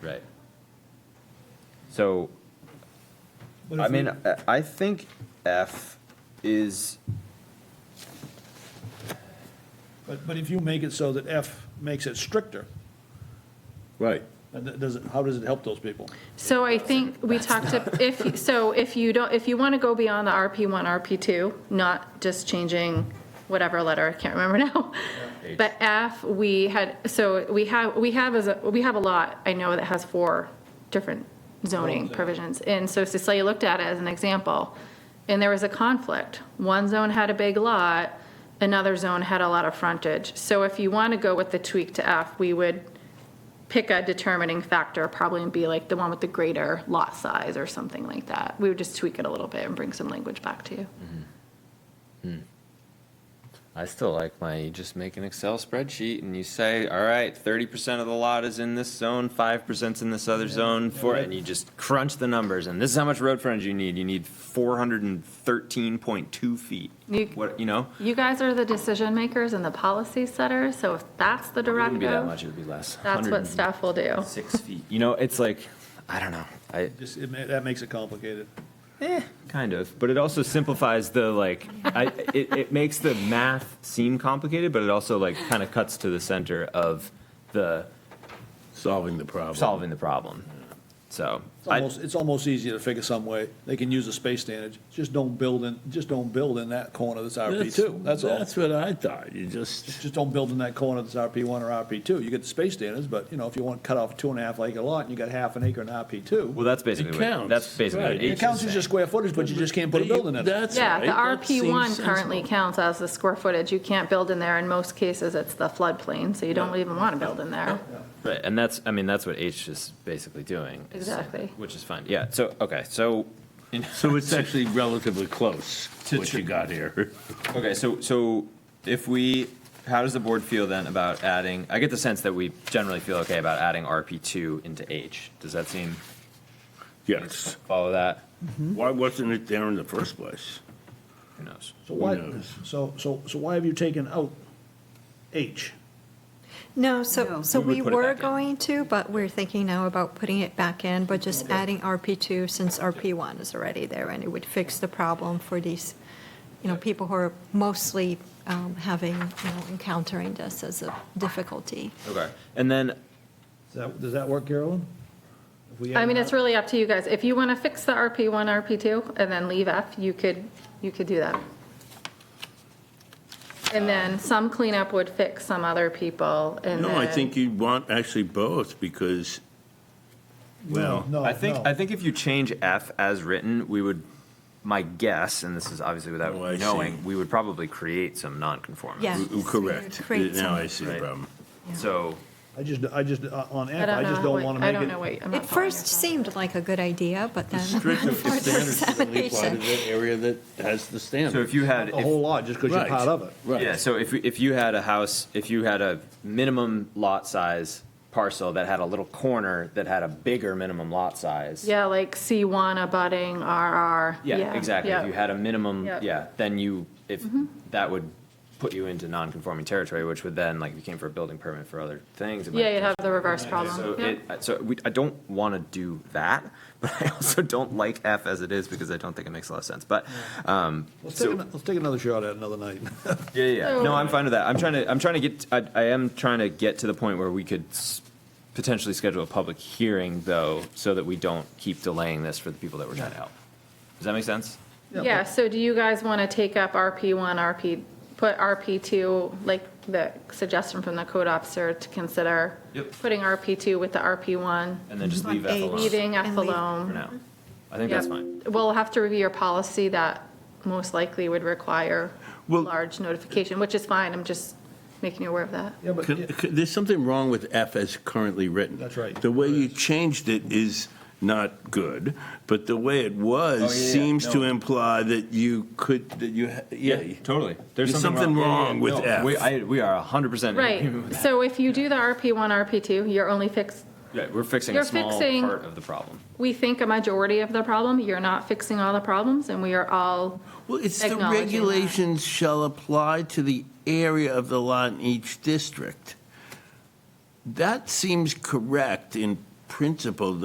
Right. So, But I if we- mean, I- I think F is, But, but if you make it so that F makes it stricter, Right. then that does it, how does it help those people? So I think we talked, ab- if, so if you don't, if you want to go beyond the RP1, RP2, not just changing whatever letter, I can't remember now. But F, we had, so we have, we have, as a we have a lot, I know, that has four different zoning provisions. And so Cecilia looked at it as an example, and there was a conflict. One zone had a big lot, another zone had a lot of frontage. So if you want to go with the tweak to F, we would pick a determining factor, probably and be like the one with the greater lot size or something like that. We would just tweak it a little bit and bring some language back to you. Mm-hmm. I still like my, you just make an Excel spreadsheet and you say, all right, thirty percent of the lot is in this zone, five percent's in this other zone, four, and you just crunch the numbers, and this is how much road frontage you need, you need four hundred and thirteen point two feet. You- What, you know? You guys are the decision makers and the policy setters, so if that's the It wouldn't be that directive, much, it would be less. that's what 100 staff will do. Six feet, you know, it's like, I don't know, I, Just, it ma- that makes it complicated. Kind of, but it also simplifies the like. I, it, it makes the math seem complicated, but it also like kind of cuts to the center of the Solving the problem. solving the problem. So It's I, almost, it's almost easier to figure some way, they can use a space standard, just don't build in, just don't build in that corner that's That RP Uh, too. two, that's all. That's what I thought, you just, Just don't build in that corner that's RP one or RP two, you get the space standards, but, you know, if you want to cut off two and a half acre lot and you got half an acre in RP two, well, that's basically what, counts, that's basically what right. H it is counts as saying. your square footage, but you just can't put a building in it. that's Yeah, right. the RP1 currently counts as the square footage. You can't build in there. In most cases, it's the floodplain, so you don't even want to build in there. Right, and that's I mean that's what H is basically doing. is- Exactly. Which is fine. Yeah. So okay. So So it's actually relatively close, what you got here. Okay, so, so if we, how does the board feel then about adding, I get the sense that we generally feel okay about adding RP2 into H. Does that seem, Yes. follow that? Mm-hmm. Why wasn't it there in the first place? Who knows? So why, Who knows? so, so, so why have you taken out H? No, so, so We would we put it were back in. going to, but we're thinking now about putting it back in, but just adding RP2 since RP1 is already there, and it would fix the problem for these, you know, people who are mostly um, having, you know, encountering this as a difficulty. Okay, and then, Does that, does that work, Carolyn? If we I add mean, that- it's really up to you guys. If you want to fix the RP1, RP2, and then leave F, you could, you could do that. And then some cleanup would fix some other people, and No, I then- think you'd want actually both, because, well, No, I think, Oh, no. I think if you change F as written, we would, my guess, and this is obviously without Oh, I see. knowing, we would probably create some non-conformance. Yeah. uh, correct, Create now I some- see the problem. So, I just, I just, uh, on I F, don't I know. just how don't it- want to I make don't know it. what. I'm not It following your first thought. seemed like a good idea, but then. Strict for standards only apply to examination- that area that has the standard. so if you had. a if- whole lot, just because you're Right, part of it. Right. Yeah, so if, if you had a house, if you had a minimum lot size parcel that had a little corner that had a bigger minimum lot size. Yeah, like C1 abutting RR. Yeah, exactly. If you had a minimum, Yep. yeah, then you, if, Mm-hmm. that would put you into non-conforming territory, which would then, like, if you came for a building permit for other things. it might- Yeah, you'd have the reverse So problem. Yep. it, so we, I don't want to do that, but I also don't like F as it is because I don't think it makes a lot of sense, but, um, Let's so- take, ano- let's take another shot at it another night. Yeah, yeah. yeah. No, So- I'm fine with that. I'm trying to, I'm trying to get, I, I am trying to get to the point where we could s- potentially schedule a public hearing, though, so that we don't keep delaying this for the people that we're trying to help. Does that make sense? Yeah, so do you guys want to take up RP1, RP, put RP2, like the suggestion from the code officer to consider? Yep. Putting RP2 with the RP1, And then just leave F Eight. alone leaving F And leave- for alone? now. I think that's Yep. fine. We'll have to review your policy that most likely would require Well- large notification, which is fine, I'm just making you aware of that. Yeah, but, C- c- There's something wrong with F as currently written. That's right. The way you changed it is not good, but the way it Oh, was yeah, yeah. seems to No. imply that you could, that you, ha- yeah. totally. There's something wrong with Yeah, yeah, yeah. F. We, I, we are hundred percent in agreement Right, with that. so if you do the RP1, RP2, you're only fixed, Yeah, we're fixing a You're small fixing- part of the problem. we think a majority of the problem, you're not fixing all the problems, and we are all Well, it's the Acknowledging that. regulations shall apply to the area of the lot in each district. That seems correct in principle